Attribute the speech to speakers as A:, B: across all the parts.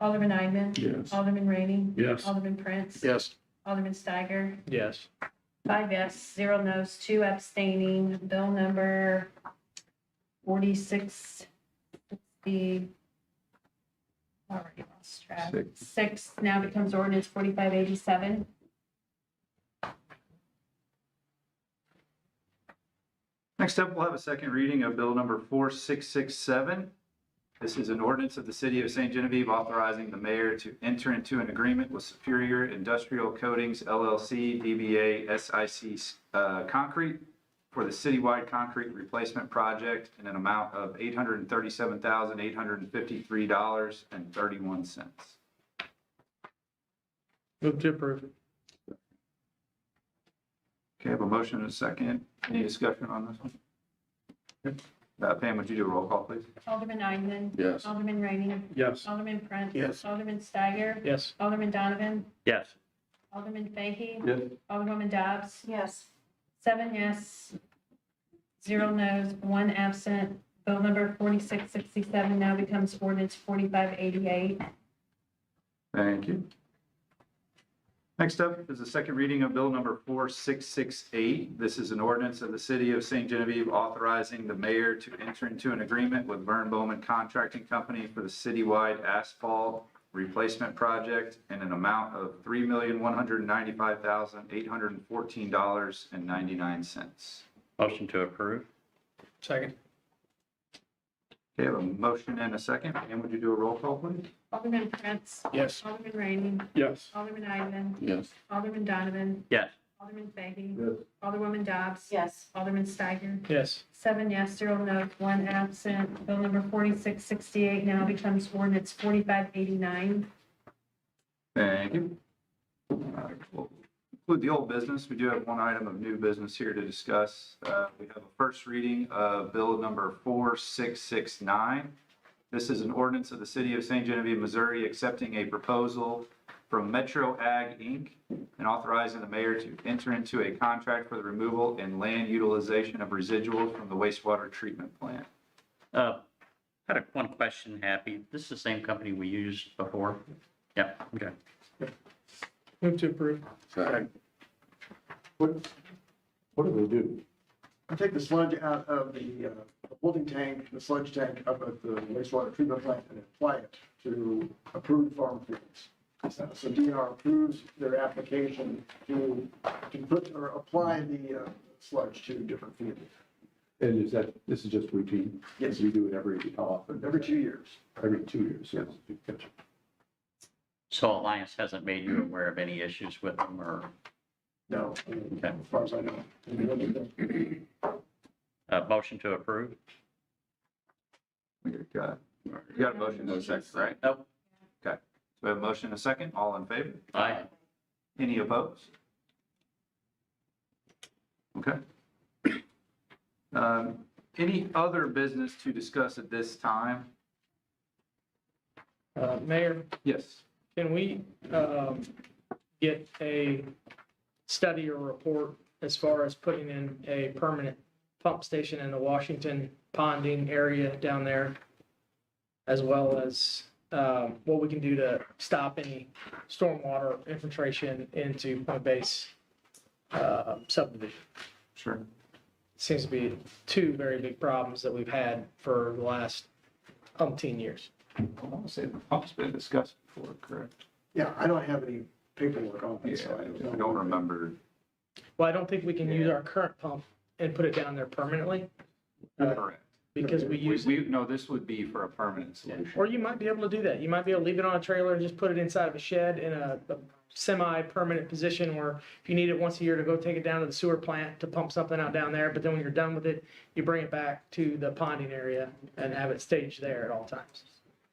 A: Alderman Eidman.
B: Yes.
A: Alderman Rainey.
B: Yes.
A: Alderman Prince.
C: Yes.
A: Alderman Steiger.
D: Yes.
A: Five yes, zero no's, two abstaining. Bill number forty-six. The. Already lost track. Six now becomes ordinance forty-five eighty-seven.
E: Next up, we'll have a second reading of Bill Number 4667. This is an ordinance of the City of St. Genevieve authorizing the mayor to enter into an agreement with Superior Industrial Coatings LLC, DBA SIC uh, Concrete for the citywide concrete replacement project in an amount of $837,853.31.
D: Move to approve.
E: Okay, I have a motion and a second. Any discussion on this one? Uh, Pam, would you do a roll call, please?
A: Alderman Eidman.
B: Yes.
A: Alderman Rainey.
D: Yes.
A: Alderman Prince.
C: Yes.
A: Alderman Steiger.
D: Yes.
A: Alderman Donovan.
D: Yes.
A: Alderman Fahy.
E: Yes.
A: Alderwoman Dobbs.
F: yes,
A: Seven yes, zero no's, one absent. Bill number 4667 now becomes ordinance 4588.
E: Thank you. Next up is the second reading of Bill Number 4668. This is an ordinance of the City of St. Genevieve authorizing the mayor to enter into an agreement with Vern Bowman Contracting Company for the citywide asphalt replacement project in an amount of $3,195,814.99.
C: Motion to approve?
D: Second.
E: Okay, I have a motion and a second. And would you do a roll call, please?
A: Alderman Prince.
D: Yes.
A: Alderman Rainey.
D: Yes.
A: Alderman Eidman.
B: Yes.
A: Alderman Donovan.
C: Yes.
A: Alderman Fahy.
E: Yes.
A: Alderwoman Dobbs.
F: yes,
A: Alderman Steiger.
D: Yes.
A: Seven yes, zero no, one absent. Bill number 4668 now becomes ordinance 4589.
E: Thank you. All right, we'll Include the old business. We do have one item of new business here to discuss. Uh, We have a first reading of Bill Number 4669. This is an ordinance of the City of St. Genevieve, Missouri, accepting a proposal from Metro Ag, Inc. and authorizing the mayor to enter into a contract for the removal and land utilization of residuals from the wastewater treatment plant.
C: Uh, had a, one question, Happy. This is the same company we used before? Yep, okay.
D: Move to approve.
B: Second.
G: What, what do they do? I take the sludge out of the uh, holding tank, the sludge tank up at the wastewater treatment plant and apply it to approved farm fields. So so DNR approves their application to, to put or apply the uh, sludge to different fields
H: And is that, this is just routine?
G: Yes.
H: We do it every, how often?
G: every two years.
H: Every two years, yes.
C: So Alliance hasn't made you aware of any issues with them or,
G: No, I mean, as far as I know. I mean,
C: uh, motion to approve?
E: We got, it. you got a motion and a second, right?
C: Nope.
E: So we have a motion and a second. All in favor?
C: Aye.
E: Any opposed? Okay. Um, Any other business to discuss at this time?
D: Uh, Mayor,
E: Yes.
D: can we, um, get a study or report as far as putting in a permanent pump station in the Washington ponding area down there? As well as, um, what we can do to stop any stormwater infiltration into Point Base, uh, subdivision?
E: Sure.
D: seems to be two very big problems that we've had for the last umpteen years.
E: I want to say the pump's been discussed before, correct?
G: Yeah, I don't have any paperwork on
E: Yeah,
G: it, so I don't know.
E: I don't remember.
D: Well, I don't think we can use our current pump and put it down there permanently Uh,
E: Correct.
D: because we
E: We,
D: use,
E: we, no, this would be for a permanent solution.
D: or you might be able to do that. You might be able to leave it on a trailer, just put it inside of a shed in a a semi-permanent position where if you need it once a year to go take it down to the sewer plant to pump something out down there, but then when you're done with it, you bring it back to the ponding area and have it staged there at all times.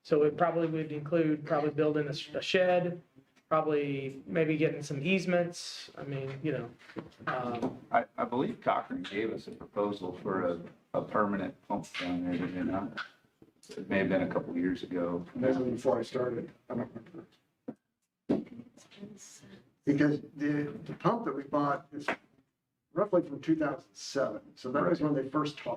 D: So it probably would include probably building a s- a shed, probably maybe getting some easements. I mean, you know, um,
E: I, I believe Cochran gave us a proposal for a, a permanent pump down there, did they not? It may have been a couple of years ago.
G: Maybe before I started, I don't remember. Because the, the pump that we bought is roughly from two thousand seven, so that was when they first talked